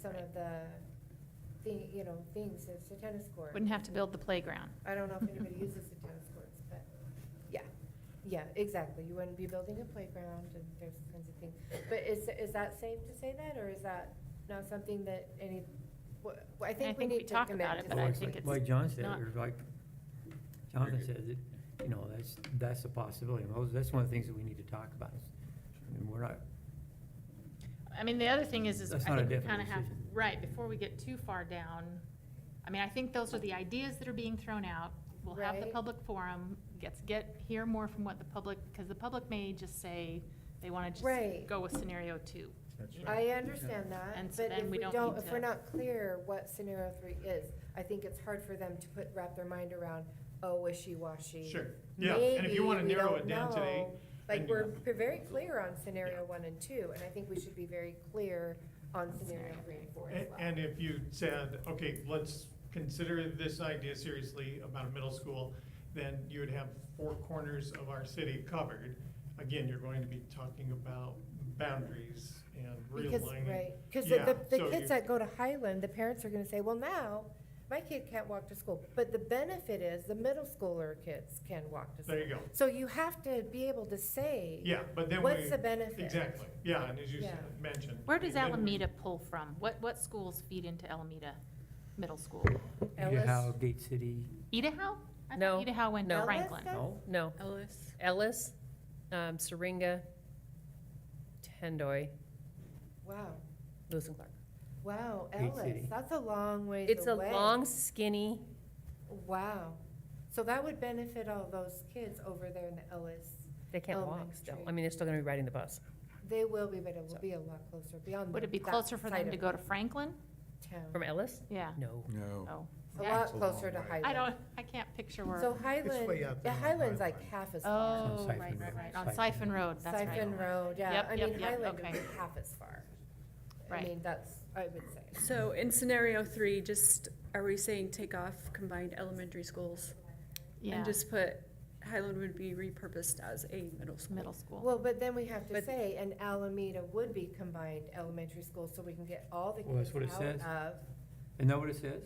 some of the, thi- you know, things, it's a tennis court. Wouldn't have to build the playground. I don't know if anybody uses the tennis courts, but, yeah, yeah, exactly, you wouldn't be building a playground and those kinds of things. But is, is that safe to say that, or is that not something that any, wh- wh- I think we think we need to talk commit about to it, something. but I Like- think it's Like John said, not- or like Jonathan Very good. said, that, you know, that's, that's a possibility. And those- That's one of the things that we need to talk about. is, I mean, we're not, I mean, the other thing is, is I That's not a think we definite kind of have, decision. right, before we get too far down, I mean, I think those are the ideas that are being thrown out. We'll have the Right. public forum, gets, get, hear more from what the public, because the public may just say they want to Right. just go with scenario two. That's you know? I understand And that, so but then if we we don't don't, need if we're to- not clear what scenario three is, I think it's hard for them to put, wrap their mind around, oh, wishy-washy. Sure, yeah, and if Maybe you wanna we narrow don't it down today, know. Like, then- we're p- very clear on scenario one and two, and I think we should be very clear on scenario three and four as A- well. and if you said, okay, let's consider this idea seriously about a middle school, then you would have four corners of our city covered. Again, you're going to be talking about boundaries and Because, realigning. right, because the, Yeah, the so you- kids that go to Highland, the parents are gonna say, well, now, my kid can't walk to school. But the benefit is, the middle schooler kids can walk to school. There you go. So you have to be able to say. Yeah, but then we. What's the benefit? Exactly, yeah, and as you s- Yeah. mentioned. Where does then we- Alameda pull from? What, what schools feed into Alameda Middle School? Ellis? how Gate City, Idaho? I thought No, Idaho went to no. Franklin. Ellis no? No, Ellis. Ellis, um, Syringa, Tendoy, Wow, Lewis and Clark. wow, Big Ellis, city. that's a long ways away. It's a long skinny, Wow, so that would benefit all those kids over there in the Ellis. they Oh, can't walk still. I Elementary. mean, they're still gonna be riding the bus. They will be, but it will be a lot closer, beyond. Would it be that closer for side them to of go to Franklin? Town, From Ellis? Yeah, No. No. oh. a Yeah. lot closer to long way. Highland. I don't, I can't picture where. So Highland, way out the there on Highland's Highland. like half as far. Oh, Siphon right, right, Road. right, on Siphon Siphon Road, that's right. Siphon Road, yeah, Yep, I yep, mean, yep, Highland would okay. be half as far. I Right. mean, that's, I would say. So in scenario three, just, are we saying take off combined elementary schools? Yeah, And just put, Highland would be repurposed as a middle school? middle school. Well, but then we have to But- say, and Alameda would be combined elementary school, so we can get all the Well, that's kids what it out says. of. Isn't that what it says?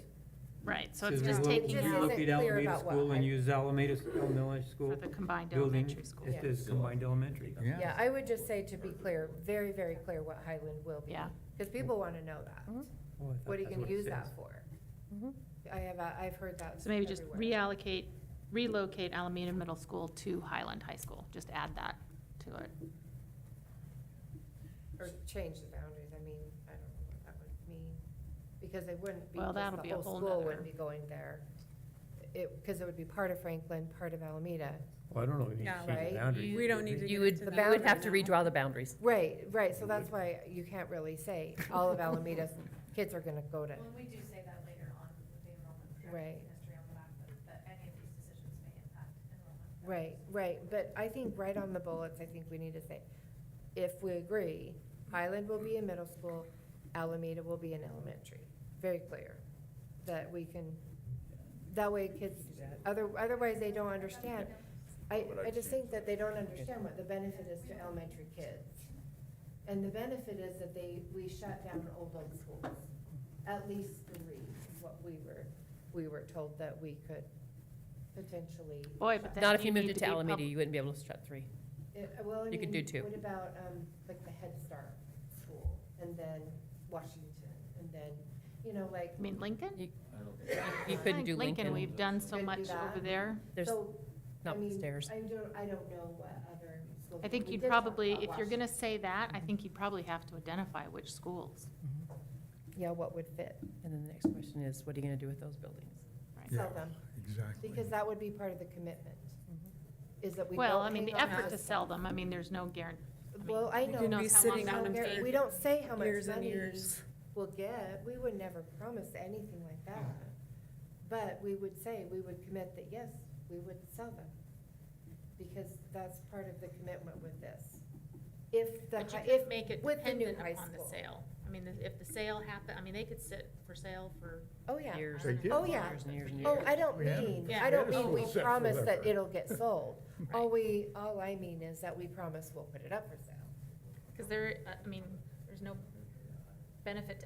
Right, so it's Says just we will- It taking We just out look isn't at clear Alameda about what School I- and use Alameda s- Elementary for School the combined building. elementary school. It says combined elementary. Yeah, I would just say to be clear, very, very clear what Highland will be. Yeah. Mm-hmm. Because people want to know that. Mhm. Oh, I thought What are you that's going to use it that says. for? Mhm. I have, a- I've heard that So maybe just everywhere. reallocate, relocate Alameda Middle School to Highland High School, just add that to it. Or change the boundaries, I mean, I don't know what that would mean, because it wouldn't be, Well, just that'll be the a whole whole school wouldn't nother- be going there. It, because it would be part of Franklin, part of Alameda. Well, I don't know, we need Yeah, to change right? the boundaries. We don't need to You get would, into The you would have to boundaries now. redraw the boundaries. Right, right, so that's why you can't really say all of Alameda's kids are gonna go to, Well, we do say that later on with the enrollment Right. projected history on the back, but that any of these decisions may impact enrollment. right, right, but I think right on the bullets, I think we need to say, if we agree, Highland will be in middle school, Alameda will be in elementary, very clear, that we can, that way kids, other, otherwise they don't understand, I, I just think that they don't understand what the benefit is to elementary kids. And the benefit is that they, we shut down old old schools, at least three, is what we were, we were told that we could potentially. Boy, but shut then Not if you you moved need it to to be pub- Alameda, you wouldn't be able to shut three. Yeah, uh, Well, I You could mean, do two. What about, um, like the Head Start school, and then Washington, and then, you know, like, uh, I mean, Lincoln? You couldn't Like do Lincoln, Lincoln. we've done so Couldn't do much that. over there. There's so, I not mean, stairs. I don't, I don't know what other schools. I think we you'd did talk probably, about if you're gonna Washington. say that, I think you'd probably have to identify which schools. Yeah, what would fit, And then the next question is, what are you gonna do with those buildings? sell them, Exactly. because that would be part of the commitment, is that we don't. Well, I mean, the hang on effort to stuff. sell them, I mean, there's no guarantee. Well, I Who know. knows we how long Could be sitting that don't on them will guar- take. for We don't say how much years and money years. we'll get, we would never promise anything like that. But we would say, we would commit that, yes, we would sell them. Because that's part of the commitment with this. If the, But you hi- could make if, it with the new dependent high upon the school. sale. I mean, the- if the sale happen, I mean, they could sit for sale for. Oh, yeah. Years I don't They know, did. Oh, yeah. years and years and Oh, years. I don't We had a- mean, Yeah. I don't we had a mean we school set for promise that that for- it'll get sold. All Right. we, all I mean is that we promise we'll put it up for sale. Because there, uh, I mean, there's no benefit to